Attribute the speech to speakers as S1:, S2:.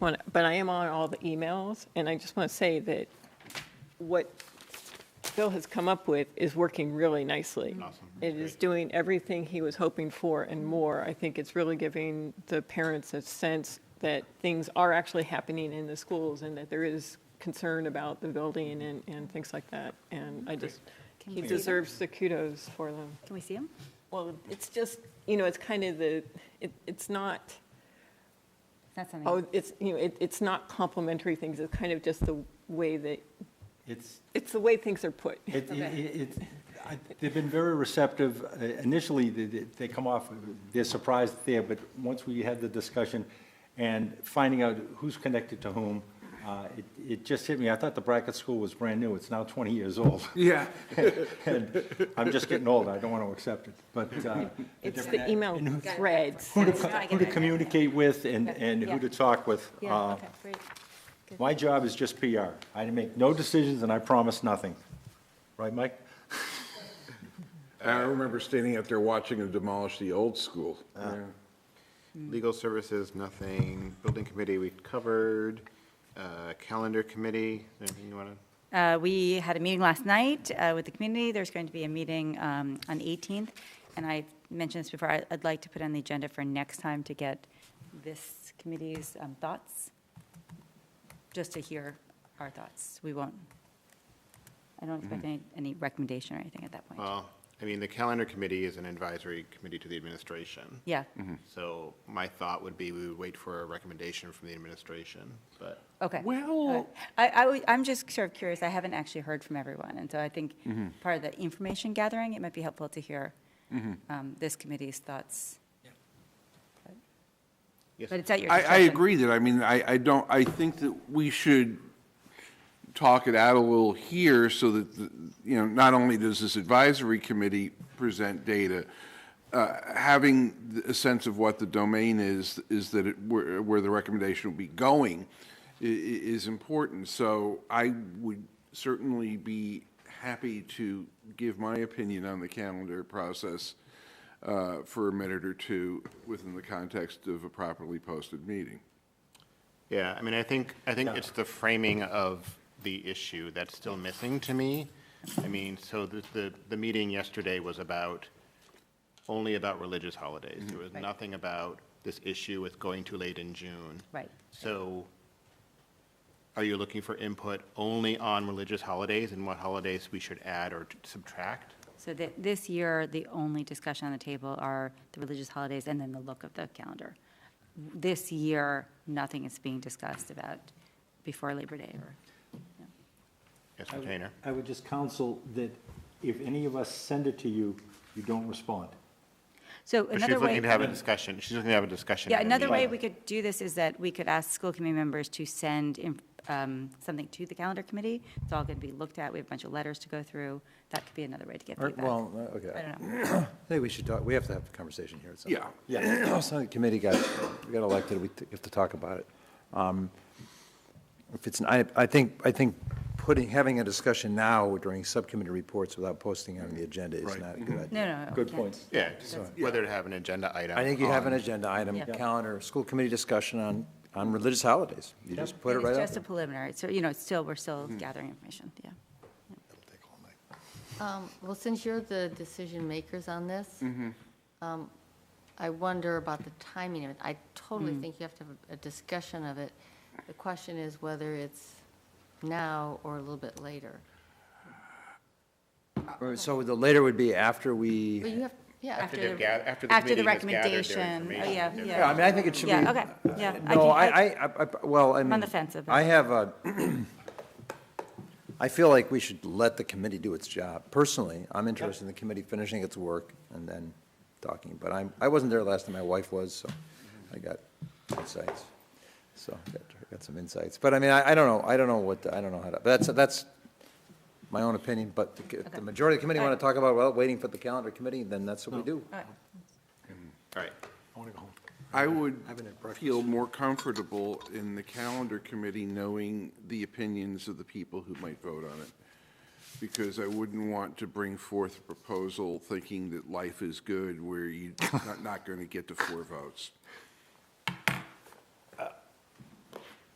S1: Well, But I am on all the emails, and I just want to say that what Bill has come up with is working really nicely.
S2: Awesome.
S1: It is doing everything he was hoping for and more. I think it's really giving the parents a sense that things are actually happening in the schools and that there is concern about the building and, and things like that. And I just,
S3: Can
S1: he
S3: we see that?
S1: deserves the kudos for them.
S3: Can we see him?
S1: Well, it's just, you know, it's kind of the, it, it's not,
S3: It's not something,
S1: Oh, it's, you know, it, it's not complimentary things, it's kind of just the way that,
S2: It's,
S1: it's the way things are put.
S2: it, it,
S3: Okay.
S2: it- it's- I- they've been very receptive. Uh, Initially, they- they, they come off, they're surprised there, but once we had the discussion and finding out who's connected to whom, uh, it, it just hit me. I thought the Brackett School was brand new. It's now 20 years old.
S4: Yeah.
S2: And I'm just getting old. I don't want to accept it, but. uh,
S1: It's
S2: different-
S1: the email
S2: and who-
S1: threads.
S2: Who to,
S3: That's what I
S2: who to
S3: get.
S2: communicate with and,
S3: Okay.
S2: and who
S3: Yeah.
S2: to talk with.
S3: yeah,
S2: uh,
S3: okay, great.
S2: My job is just PR. I make no decisions and I promise nothing. Right, Mike?
S4: I remember standing out there watching them demolish the old school.
S5: Legal services, nothing. Building committee, we covered. Uh, Calendar committee, anything you want to?
S3: Uh, We had a meeting last night uh, with the community. There's going to be a meeting um, on the 18th. And I mentioned this before, I- I'd like to put on the agenda for next time to get this committee's um, thoughts, just to hear our thoughts. We won't, I don't expect any, any recommendation or anything at that point.
S5: Well, I mean, the calendar committee is an advisory committee to the administration.
S3: Yeah,
S5: So my thought would be we would wait for a recommendation from the administration, but
S3: okay.
S4: Well-
S3: I, I, would- I'm just sort of curious, I haven't actually heard from everyone, and so I think
S5: Mm-hmm.
S3: part of the information gathering, it might be helpful to hear
S5: Mm-hmm.
S3: um, this committee's thoughts.
S5: Yes.
S3: But it's at your
S4: I, I
S3: discretion.
S4: agree that, I mean, I, I don't, I think that we should talk it out a little here so that, the- you know, not only does this advisory committee present data, uh, having th- a sense of what the domain is, is that it, where, where the recommendation will be going i- i- is important. So I would certainly be happy to give my opinion on the calendar process uh, for a minute or two within the context of a properly posted meeting.
S5: Yeah, I mean, I think, I think it's the framing of the issue that's still missing to me. I mean, so the, the, the meeting yesterday was about, only about religious
S3: Mm-hmm.
S5: holidays. There was nothing about this issue with going too late in June.
S3: Right.
S5: So are you looking for input only on religious holidays and what holidays we should add or subtract?
S3: So that, this year, the only discussion on the table are the religious holidays and then the look of the calendar. This year, nothing is being discussed about before Labor Day or,
S5: Yes, retainer.
S2: I would just counsel that if any of us send it to you, you don't respond.
S3: so
S5: But
S3: another
S5: she's
S3: way.
S5: looking to have a discussion, she's looking to have a discussion.
S3: Yeah,
S5: at a
S3: another way
S5: meeting.
S3: we could do this is that we could ask school committee members to send in- um, something to the calendar committee. It's all going to be looked at. We have a bunch of letters to go through. That could be another way to get
S6: Or-
S3: feedback.
S6: Well, uh,
S3: I
S6: okay.
S3: don't know.
S6: I think we should talk, we have to have a conversation here at some
S4: Yeah.
S6: point. Yeah. So the committee got, we got elected, we t- have to talk about it. Um, If it's, I, I think, I think putting, having a discussion now during subcommittee reports without posting it on the agenda is not a good idea.
S3: No, no, no.
S2: Good
S3: yeah.
S2: point.
S5: Yeah, just whether to have an agenda item.
S6: I think you have an
S5: on-
S6: agenda item,
S3: Yeah.
S6: calendar, school committee discussion on, on religious holidays. You just put it
S3: It's
S6: right up
S3: just a
S6: there.
S3: preliminary. So, you know, it's still, we're still gathering information, yeah.
S7: Um, Well, since you're the decision makers on this, um, I wonder about the timing of it. I totally think you have to have a discussion of it. The question is whether it's now or a little bit later.
S6: Right, So the later would be after we,
S7: But you have, yeah,
S3: After
S5: they've
S3: the-
S5: gath- after the committee has gathered their
S3: recommendation. Oh,
S5: information,
S3: yeah,
S5: they're-
S6: yeah, I
S3: yeah.
S6: mean, I think it should be.
S3: Yeah, okay, yeah.
S6: No,
S3: can-
S6: I, I, I- I- well, I mean.
S3: on the fence about
S6: I
S3: it.
S6: have a, I feel like we should let the committee do its job. Personally, I'm interested in the committee finishing its work and then talking, but I'm, I wasn't there last time, my wife was, so I got insights. So, I got- I got some insights, but I mean, I, I don't know, I don't know what, I don't know how to, that's, that's my own opinion, but the- if the majority of the committee want to talk about, well, waiting for the calendar committee, then that's what we do.
S5: All right.
S4: I would feel more comfortable in the calendar committee knowing the opinions of the people who might vote on it. Because I wouldn't want to bring forth a proposal thinking that life is good where you're not, not going to get to four votes.